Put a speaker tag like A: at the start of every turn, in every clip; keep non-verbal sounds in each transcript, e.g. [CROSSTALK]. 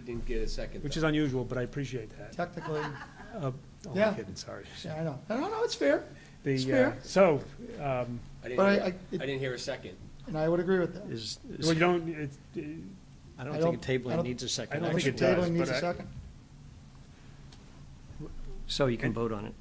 A: didn't get a second.
B: which is
A: though.
B: unusual, but I appreciate that.
C: Technically,
B: Uh, Oh,
C: Yeah.
B: I'm kidding, sorry.
C: yeah, I know. I don't know, it's fair,
B: The,
C: It's
B: uh,
C: fair.
B: So, um,
A: I didn't
C: but I,
A: hear-
C: I,
A: I
C: it-
A: didn't hear a second.
C: and I would agree with that.
D: Is, is-
B: well, you don't, it's, uh,
D: I
C: I
D: don't think
C: don't- I
D: tabling
C: don't-
D: needs a
B: I
D: second
B: don't
C: Motion
B: think
D: action.
B: it does,
C: tabling needs
B: but
C: a
B: I-
C: second.
D: So you can vote on it.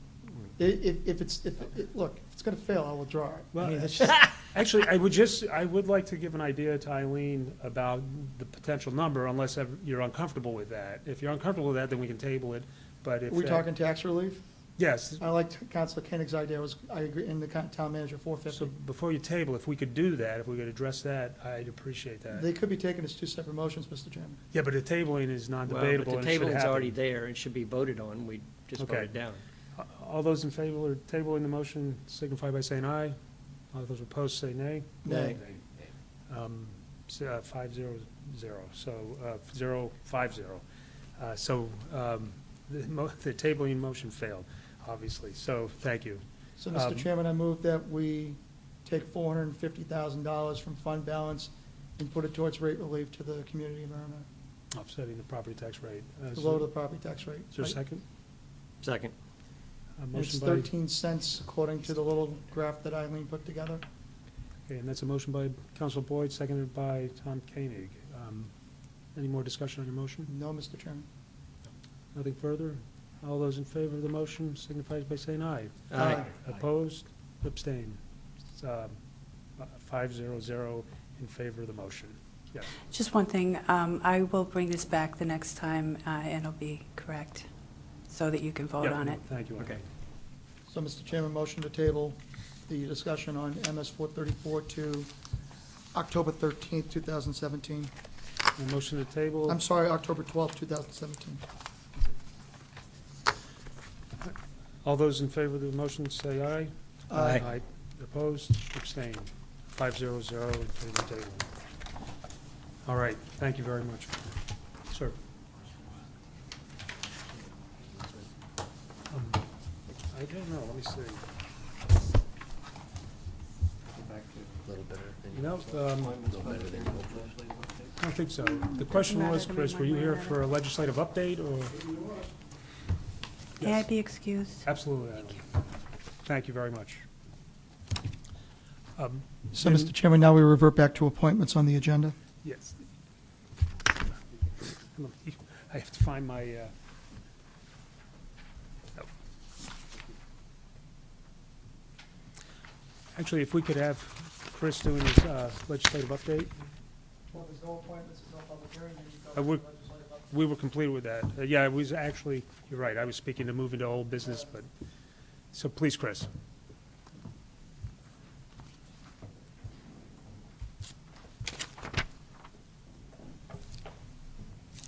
C: I- If, if it's, if, it- look, if it's gonna fail, I will draw it. I
B: Well,
C: mean, it's just-
B: [LAUGHS] Actually, I would just, I would like to give an idea to Eileen about the potential number, unless ev- you're uncomfortable with that. If you're uncomfortable with that, then we can table it, but if.
C: Are we
B: that-
C: talking tax relief?
B: Yes,
C: I like Councilor Koenig's idea, was, I agree, in the con- town manager, four
B: so
C: fifty.
B: before you table, if we could do that, if we could address that, I'd appreciate that.
C: They could be taken as two separate motions, Mr. Chairman.
B: Yeah, but the tabling is
D: Well,
B: non-debatable
D: But
B: and
D: the
B: it should
D: table is already
B: happen.
D: there, it should be voted on, we just
B: Okay.
D: voted down.
B: All those in favor of tabling the motion signify by saying aye. All those opposed say nay.
C: Nay.
B: Um, s- uh, Five zero zero, so, uh, zero, five zero. Uh, So um, the mo- [LAUGHS] the tabling motion failed, obviously, so thank you.
C: So, Mr.
B: Um,
C: Chairman, I move that we take four hundred and fifty thousand dollars from fund balance and put it towards rate relief to the community of Irma,
B: Offsetting the property tax rate. Uh,
C: to
B: Is
C: lower
B: there
C: the property tax rate.
B: is there a second?
D: Second.
B: A
C: And It's
B: motion by, okay,
C: thirteen cents according to the little graph that Eileen put together.
B: and that's a motion by Counsel Boyd, seconded by Tom Koenig. Um, Any more discussion on your motion?
C: No, Mr. Chairman.
B: Nothing further? All those in favor of the motion signify by saying aye.
D: Aye.
B: Opposed, abstain. um, Five zero zero in favor of the motion. Yes.
E: Just one thing, um, I will bring this back the next time, uh, and it'll be correct, so that you can vote
B: Yeah,
E: on
B: no,
E: it.
B: Thank you.
D: Okay.
C: So, Mr. Chairman, motion to table the discussion on MS four thirty-four to October thirteenth, two thousand seventeen.
B: A motion to table.
C: I'm sorry, October twelfth, two thousand seventeen.
B: All those in favor of the motion say aye.
D: Aye.
B: Opposed, abstained. Five zero zero in favor of table. All right, thank you very much. Sir. Um, I don't know, let me see. No, um, I don't think so. The question was, Chris, were you here for a legislative update or?
E: May I be excused?
B: Absolutely, Eileen. Thank you very much. Um,
C: So,
B: Then-
C: Mr. Chairman, now we revert back to appointments on the agenda.
B: Yes. I have to find my, uh, oh. actually, if we could have Chris doing his uh, legislative update,
C: Well, there's no appointments, there's no public hearing, then you go
B: I would-
C: to legislative update.
B: we were complete with that. Uh, Yeah, it was actually, you're right, I was speaking to move into old business, but, so please, Chris.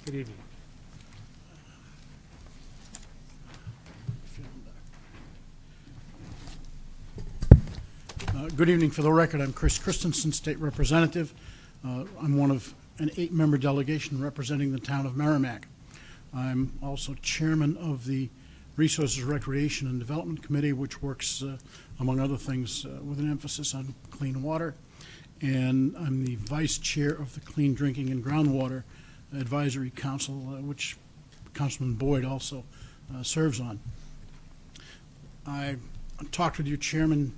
B: Good evening.
F: Uh, Good evening. For the record, I'm Chris Christensen, State Representative. Uh, I'm one of an eight-member delegation representing the town of Merrimack. I'm also Chairman of the Resources Recreation and Development Committee, which works, uh, among other things, uh, with an emphasis on clean water. And I'm the Vice Chair of the Clean Drinking and Groundwater Advisory Council, uh, which Councilman Boyd also uh, serves on. I talked with your chairman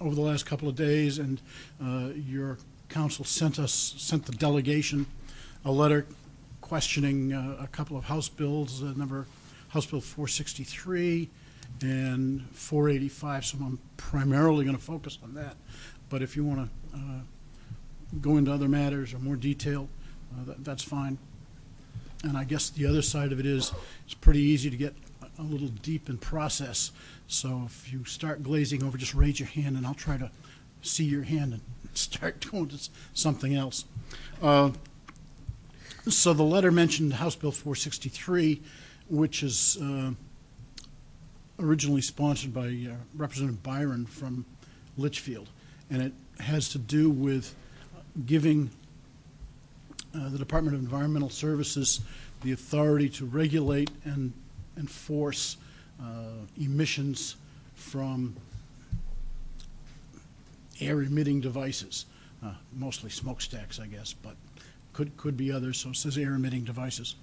F: over the last couple of days, and uh, your council sent us, sent the delegation a letter questioning uh, a couple of House bills, uh, number, House Bill 463 and 485, so I'm primarily going to focus on that. But if you want to go into other matters or more detail, uh, that- that's fine. And I guess the other side of it is, it's pretty easy to get a- a little deep in process. So if you start glazing over, just raise your hand and I'll try to see your hand and [LAUGHS] start doing s- something else. Uh, So the letter mentioned House Bill 463, which is uh, originally sponsored by uh, Representative Byron from Litchfield. And it has to do with giving uh, the Department of Environmental Services the authority to regulate and enforce uh, emissions from air emitting devices, uh, mostly smokestacks, I guess, but could, could be others, so it says air emitting devices.